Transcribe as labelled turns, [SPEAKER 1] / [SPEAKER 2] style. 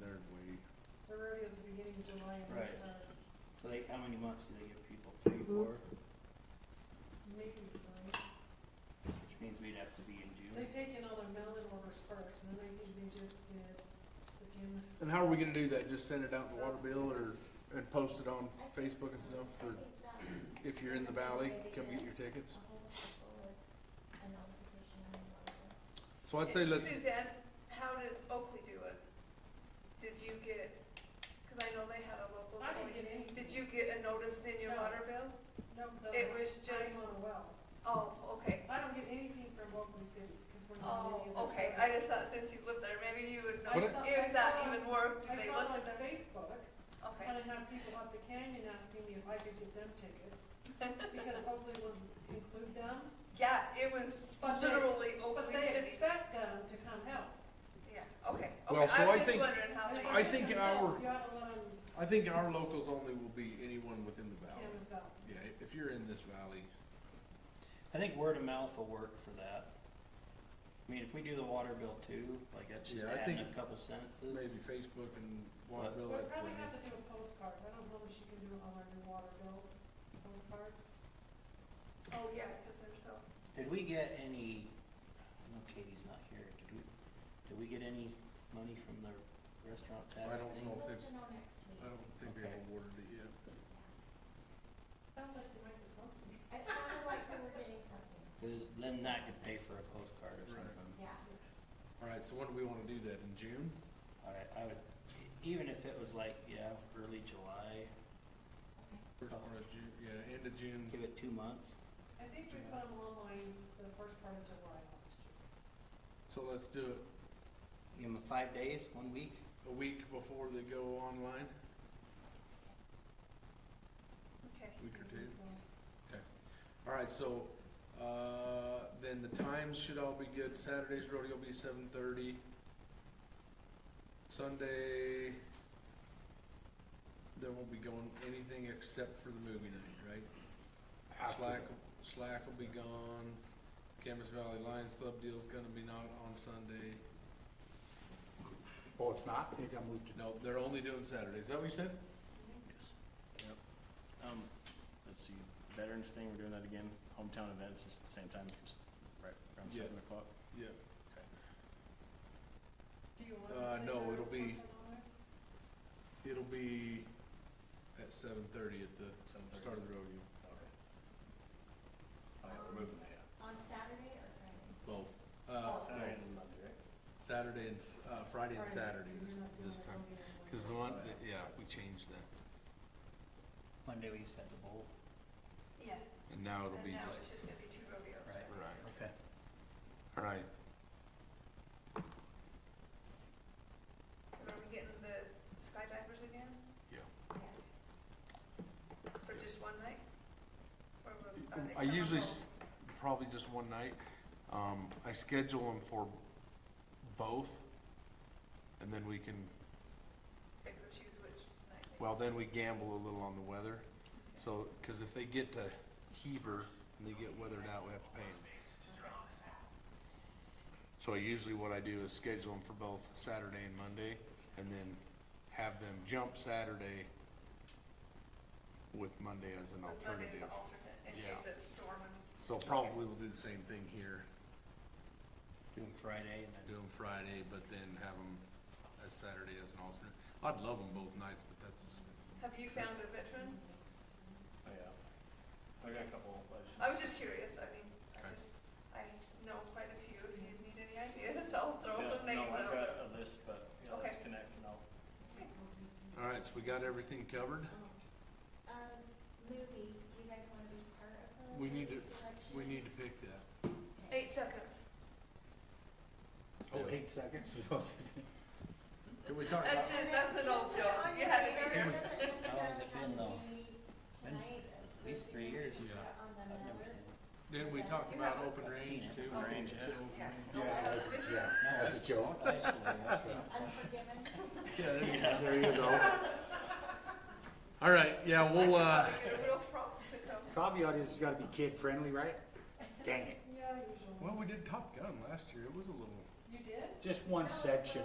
[SPEAKER 1] they're way,
[SPEAKER 2] The rodeo's the beginning of July and they
[SPEAKER 3] Right.
[SPEAKER 2] start
[SPEAKER 3] So they, how many months do they give people? Three, four?
[SPEAKER 2] maybe three.
[SPEAKER 3] Which means we'd have to be in
[SPEAKER 2] They
[SPEAKER 3] June.
[SPEAKER 2] take in all their melon orders first and then I think they just did the gym.
[SPEAKER 1] and how are we gonna do that? Just send it out in the water bill or, and post it on Facebook and stuff for, if you're in the valley, come get your tickets? So I'd say let's,
[SPEAKER 4] Suzanne, how did Oakley do it? Did you get, because I know they had a local.
[SPEAKER 2] I didn't get
[SPEAKER 4] zoning.
[SPEAKER 2] any.
[SPEAKER 4] Did you get a notice in your
[SPEAKER 2] No.
[SPEAKER 4] water bill?
[SPEAKER 2] No, because
[SPEAKER 4] It
[SPEAKER 2] I'm
[SPEAKER 4] was just,
[SPEAKER 2] on a well.
[SPEAKER 4] oh, okay.
[SPEAKER 2] I don't get anything from Oakley City because we're
[SPEAKER 4] Oh,
[SPEAKER 2] not getting any of
[SPEAKER 4] okay.
[SPEAKER 2] their
[SPEAKER 4] I just
[SPEAKER 2] services.
[SPEAKER 4] thought since you lived there, maybe you would
[SPEAKER 2] I
[SPEAKER 4] know
[SPEAKER 2] saw- I
[SPEAKER 4] if that
[SPEAKER 2] saw-
[SPEAKER 4] even worked.
[SPEAKER 2] I
[SPEAKER 4] Did they
[SPEAKER 2] saw
[SPEAKER 4] look
[SPEAKER 2] on
[SPEAKER 4] at them?
[SPEAKER 2] Facebook,
[SPEAKER 4] Okay.
[SPEAKER 2] and I had people up the canyon asking me if I could get them tickets because Oakley would include them.
[SPEAKER 4] Yeah, it was
[SPEAKER 2] But they-
[SPEAKER 4] literally
[SPEAKER 2] But
[SPEAKER 4] Oakley
[SPEAKER 2] they
[SPEAKER 4] City.
[SPEAKER 2] expect them to come help.
[SPEAKER 4] Yeah, okay.
[SPEAKER 1] Well,
[SPEAKER 4] Okay,
[SPEAKER 1] so
[SPEAKER 4] I
[SPEAKER 1] I
[SPEAKER 4] was just
[SPEAKER 1] think-
[SPEAKER 4] wondering how
[SPEAKER 2] And
[SPEAKER 4] they.
[SPEAKER 2] if
[SPEAKER 1] I
[SPEAKER 2] they
[SPEAKER 1] think
[SPEAKER 2] come help,
[SPEAKER 1] our-
[SPEAKER 2] You ought to let them
[SPEAKER 1] I think our locals only will be anyone within the valley.
[SPEAKER 2] canvas out.
[SPEAKER 1] Yeah, if you're in this valley,
[SPEAKER 3] I think word of mouth will work for that. I mean, if we do the water bill too, like that's just
[SPEAKER 1] Yeah, I
[SPEAKER 3] adding
[SPEAKER 1] think
[SPEAKER 3] a couple sentences.
[SPEAKER 1] maybe Facebook and water
[SPEAKER 3] What?
[SPEAKER 1] bill.
[SPEAKER 2] We'll
[SPEAKER 1] that
[SPEAKER 2] probably
[SPEAKER 1] plan.
[SPEAKER 2] have to do a postcard. I don't know if she can do it on our new water bill postcards.
[SPEAKER 4] Oh, yeah, because they're so.
[SPEAKER 3] Did we get any, I know Katie's not here, did we, did we get any money from the restaurant tax
[SPEAKER 1] I don't
[SPEAKER 3] thing?
[SPEAKER 1] know if
[SPEAKER 5] Supposed
[SPEAKER 1] they've,
[SPEAKER 5] to know next week.
[SPEAKER 1] I don't think they've
[SPEAKER 3] Okay.
[SPEAKER 1] awarded it yet.
[SPEAKER 2] Sounds like they might be something.
[SPEAKER 5] It sounded like we were getting something,
[SPEAKER 3] 'Cause then that could pay for a postcard or
[SPEAKER 1] Right.
[SPEAKER 3] something.
[SPEAKER 5] yeah.
[SPEAKER 1] Alright, so when do we wanna do that? In June?
[SPEAKER 3] Alright, I would, even if it was like, yeah, early July,
[SPEAKER 1] First part of June, yeah, end of June.
[SPEAKER 3] give it two months.
[SPEAKER 2] I think we put them online the first part of July last year.
[SPEAKER 1] So let's do it
[SPEAKER 3] Give them five days, one week.
[SPEAKER 1] a week before they go online,
[SPEAKER 4] Okay.
[SPEAKER 1] week or two.
[SPEAKER 2] So,
[SPEAKER 1] Alright, so, uh, then the times should all be good. Saturday's rodeo will be seven thirty. Sunday, there won't be going anything except for the movie night, right? Slack, Slack will be gone. Camas Valley Lions Club deal's gonna be not on Sunday.
[SPEAKER 6] Oh, it's not? It got moved to.
[SPEAKER 1] No, they're only doing Saturday. Is that what you said?
[SPEAKER 7] Yep. Um, let's see, Veterans thing, we're doing that again, hometown events, it's the same time, it's right around
[SPEAKER 1] Yeah.
[SPEAKER 7] seven o'clock.
[SPEAKER 1] Yeah.
[SPEAKER 2] Do you want to
[SPEAKER 1] Uh,
[SPEAKER 2] say
[SPEAKER 1] no,
[SPEAKER 2] there
[SPEAKER 1] it'll
[SPEAKER 2] was
[SPEAKER 1] be-
[SPEAKER 2] something on there?
[SPEAKER 1] It'll be at seven thirty at the
[SPEAKER 7] Seven thirty.
[SPEAKER 1] start of the rodeo.
[SPEAKER 7] Okay. Oh, yeah, we're moving it, yeah.
[SPEAKER 5] On Saturday or Friday?
[SPEAKER 1] Both. Uh,
[SPEAKER 7] Saturday
[SPEAKER 1] no,
[SPEAKER 7] and Monday, right?
[SPEAKER 1] Saturday and, s- uh, Friday and
[SPEAKER 2] Friday,
[SPEAKER 1] Saturday
[SPEAKER 2] so
[SPEAKER 1] this,
[SPEAKER 2] you're not doing
[SPEAKER 1] this
[SPEAKER 2] it
[SPEAKER 1] time.
[SPEAKER 2] on the-
[SPEAKER 1] Cause the one, yeah, we changed that.
[SPEAKER 3] Monday we used to have the bowl.
[SPEAKER 4] Yeah,
[SPEAKER 1] And now it'll
[SPEAKER 4] and
[SPEAKER 1] be
[SPEAKER 4] now
[SPEAKER 1] just,
[SPEAKER 4] it's just gonna be two rodeos.
[SPEAKER 3] Right.
[SPEAKER 1] right.
[SPEAKER 3] Okay.
[SPEAKER 1] Alright,
[SPEAKER 4] And Are we getting the skydivers again
[SPEAKER 5] Yes.
[SPEAKER 4] for just one night? Or will- are they
[SPEAKER 1] Mm, I
[SPEAKER 4] coming
[SPEAKER 1] usually,
[SPEAKER 4] home?
[SPEAKER 1] s- probably just one night, um, I schedule them for both. And then we can,
[SPEAKER 4] Pick or choose which night they-
[SPEAKER 1] well, then we gamble a little on the weather, so, cause if they get to Heber and they get weathered out, we have to pay them. So usually what I do is schedule them for both Saturday and Monday, and then have them jump Saturday with Monday as an
[SPEAKER 4] With Monday as
[SPEAKER 1] alternative.
[SPEAKER 4] an alternate, in
[SPEAKER 1] Yeah.
[SPEAKER 4] case it's storming.
[SPEAKER 1] So probably we'll do the same thing here,
[SPEAKER 3] Doing Friday and then.
[SPEAKER 1] do them Friday, but then have them as Saturday as an alternate. I'd love them both nights, but that's expensive.
[SPEAKER 4] Have you found a veteran?
[SPEAKER 7] Oh, yeah. I got a couple, I just-
[SPEAKER 4] I was just curious, I mean, I
[SPEAKER 1] Okay.
[SPEAKER 4] just, I know quite a few, if you need any ideas, I'll throw
[SPEAKER 7] Yeah,
[SPEAKER 4] some names
[SPEAKER 7] No, I've
[SPEAKER 4] out.
[SPEAKER 7] got a list, but, yeah, let's
[SPEAKER 4] Okay.
[SPEAKER 7] connect and I'll
[SPEAKER 1] All right, so we got everything covered.
[SPEAKER 5] Um, movie, do you guys wanna be part of the?
[SPEAKER 1] We need
[SPEAKER 5] movie
[SPEAKER 1] to,
[SPEAKER 5] selection?
[SPEAKER 1] we need to pick that.
[SPEAKER 4] Eight seconds.
[SPEAKER 6] Oh, eight seconds?
[SPEAKER 1] Can we talk about,
[SPEAKER 4] That's it, that's an old joke, you had to be
[SPEAKER 5] It
[SPEAKER 4] here.
[SPEAKER 5] doesn't
[SPEAKER 3] How long's it
[SPEAKER 5] necessarily have
[SPEAKER 3] been,
[SPEAKER 5] to
[SPEAKER 3] though?
[SPEAKER 5] be
[SPEAKER 3] Been
[SPEAKER 5] tonight.
[SPEAKER 3] at least three years.
[SPEAKER 1] Yeah.
[SPEAKER 5] On the
[SPEAKER 3] I've never
[SPEAKER 5] number.
[SPEAKER 3] seen it.
[SPEAKER 1] didn't we talk about open range too?
[SPEAKER 7] Open range, yeah.
[SPEAKER 4] Yeah.
[SPEAKER 6] Yeah, that's, yeah,
[SPEAKER 3] No,
[SPEAKER 6] that's a joke.
[SPEAKER 3] I still, yeah, so.
[SPEAKER 5] Unforgiven.
[SPEAKER 1] Yeah, there you go.
[SPEAKER 6] There you go.
[SPEAKER 1] All right, yeah, we'll, uh,
[SPEAKER 4] Probably get a real frost to come.
[SPEAKER 6] Caveat is it's gotta be kid friendly, right? Dang it.
[SPEAKER 2] Yeah, usually.
[SPEAKER 1] well, we did Top Gun last year. It was a little.
[SPEAKER 2] You did?
[SPEAKER 6] Just one section